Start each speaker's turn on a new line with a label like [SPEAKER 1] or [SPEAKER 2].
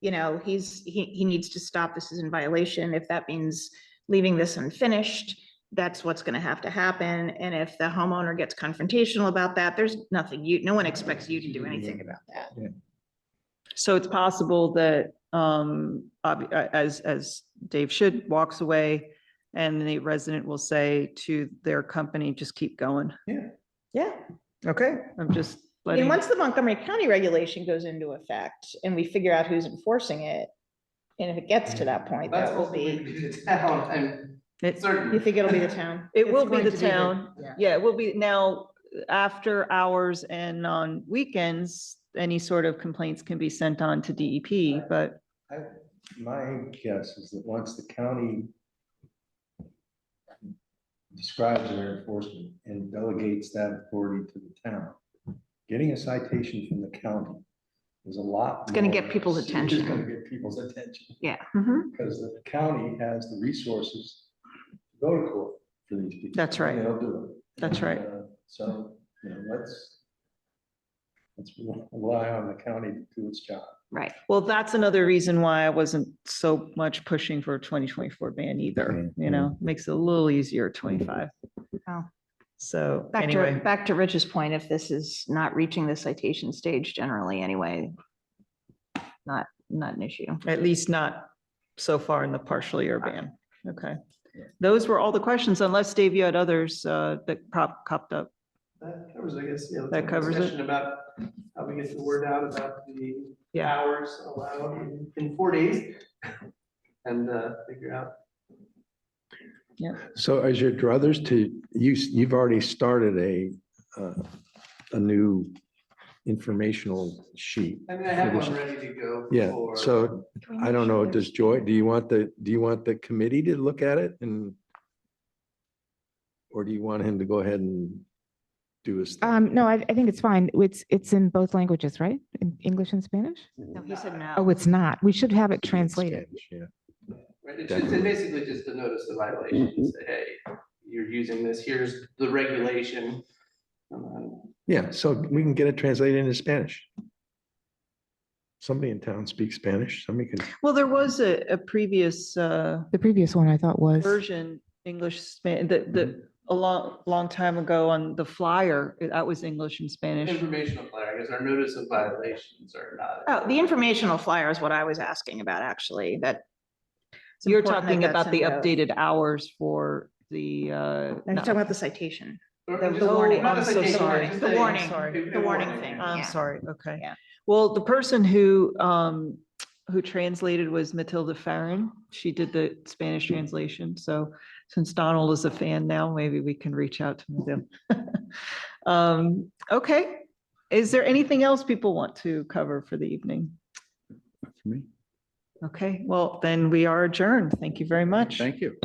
[SPEAKER 1] you know, he's, he, he needs to stop, this is in violation. If that means leaving this unfinished, that's what's gonna have to happen. And if the homeowner gets confrontational about that, there's nothing you, no one expects you to do anything about that.
[SPEAKER 2] So it's possible that, um, ob- uh, as, as Dave should, walks away and the resident will say to their company, just keep going.
[SPEAKER 1] Yeah.
[SPEAKER 2] Okay. I'm just
[SPEAKER 1] I mean,
[SPEAKER 2] letting,
[SPEAKER 1] once the Montgomery County regulation goes into effect and we figure out who's enforcing it, and if it gets to that point,
[SPEAKER 3] That's
[SPEAKER 1] that will
[SPEAKER 3] ultimately
[SPEAKER 1] be,
[SPEAKER 3] the town and
[SPEAKER 2] it,
[SPEAKER 1] you
[SPEAKER 3] certain.
[SPEAKER 1] think it'll be the town?
[SPEAKER 2] it
[SPEAKER 1] It's
[SPEAKER 2] will be
[SPEAKER 1] going
[SPEAKER 2] the
[SPEAKER 1] to the-
[SPEAKER 2] town. Yeah, it will be now, after hours and on weekends, any sort of complaints can be sent on to DEP, but
[SPEAKER 4] I- My guess is that once the county describes their enforcement and delegates that authority to the town, getting a citation from the county is a lot. It's
[SPEAKER 5] gonna get people's attention.
[SPEAKER 4] It's gonna get people's attention,
[SPEAKER 5] Yeah.
[SPEAKER 1] Mm-hmm.
[SPEAKER 4] because the county has the resources to go to court for these people.
[SPEAKER 2] That's right.
[SPEAKER 4] They'll do it.
[SPEAKER 2] That's right.
[SPEAKER 4] Uh, So, you know, let's, let's rely on the county to do its job.
[SPEAKER 5] Right.
[SPEAKER 2] Well, that's another reason why I wasn't so much pushing for a twenty twenty-four ban either, you know, makes it a little easier at twenty-five.
[SPEAKER 1] Wow.
[SPEAKER 2] So
[SPEAKER 5] Back to,
[SPEAKER 2] anyway,
[SPEAKER 5] back to Rich's point, if this is not reaching the citation stage generally anyway, not, not an issue.
[SPEAKER 2] at least not so far in the partially urban. Okay. Those were all the questions, unless Dave, you had others uh, that prop copped up.
[SPEAKER 3] That covers, I guess, yeah.
[SPEAKER 2] That covers it.
[SPEAKER 3] Discussion about how we get the word out about the
[SPEAKER 2] Yeah.
[SPEAKER 3] hours allowed in- in four days. And uh, figure out,
[SPEAKER 6] So as your druthers to, you, s- you've already started a, uh, a new informational sheet.
[SPEAKER 3] I mean, I have one ready to go.
[SPEAKER 6] Yeah,
[SPEAKER 3] for-
[SPEAKER 6] so I don't know, does Joy, do you want the, do you want the committee to look at it and? Or do you want him to go ahead and do his? thing?
[SPEAKER 7] Um, no, I, I think it's fine. It's, it's in both languages, right? In English and Spanish?
[SPEAKER 5] No, he said
[SPEAKER 7] Oh,
[SPEAKER 5] no.
[SPEAKER 7] it's not. We should have it translated.
[SPEAKER 6] Yeah.
[SPEAKER 3] Right, it's just, it's basically just a notice of violation, say, hey, you're using this, here's the regulation. Um,
[SPEAKER 6] Yeah, so we can get it translated into Spanish. Somebody in town speaks Spanish, somebody can.
[SPEAKER 2] Well, there was a, a previous uh,
[SPEAKER 7] The previous one I thought was.
[SPEAKER 2] version, English, Span, the, the, a long, long time ago on the flyer, that was English and Spanish.
[SPEAKER 3] Informational flyer, because our notice of violations are not.
[SPEAKER 1] Oh, the informational flyer is what I was asking about, actually, that. it's
[SPEAKER 2] You're
[SPEAKER 1] important that
[SPEAKER 2] talking
[SPEAKER 1] that's
[SPEAKER 2] about the
[SPEAKER 1] in both.
[SPEAKER 2] updated hours for the, uh,
[SPEAKER 1] I'm
[SPEAKER 2] no.
[SPEAKER 1] talking about the citation.
[SPEAKER 3] Or
[SPEAKER 2] The-
[SPEAKER 3] just-
[SPEAKER 2] the warning.
[SPEAKER 3] not
[SPEAKER 2] I'm
[SPEAKER 3] the
[SPEAKER 2] so
[SPEAKER 3] citation,
[SPEAKER 2] sorry.
[SPEAKER 3] just
[SPEAKER 2] The
[SPEAKER 3] a-
[SPEAKER 2] warning.
[SPEAKER 1] Sorry.
[SPEAKER 3] a
[SPEAKER 1] The warning
[SPEAKER 3] Oh,
[SPEAKER 1] thing.
[SPEAKER 2] I'm
[SPEAKER 5] Yeah.
[SPEAKER 2] sorry, okay.
[SPEAKER 1] Yeah.
[SPEAKER 2] Well, the person who, um, who translated was Matilda Farron. She did the Spanish translation, so since Donald is a fan now, maybe we can reach out to Matilda. Um, okay, is there anything else people want to cover for the evening?
[SPEAKER 6] me.
[SPEAKER 2] Okay, well, then we are adjourned. Thank you very much.
[SPEAKER 6] Thank you.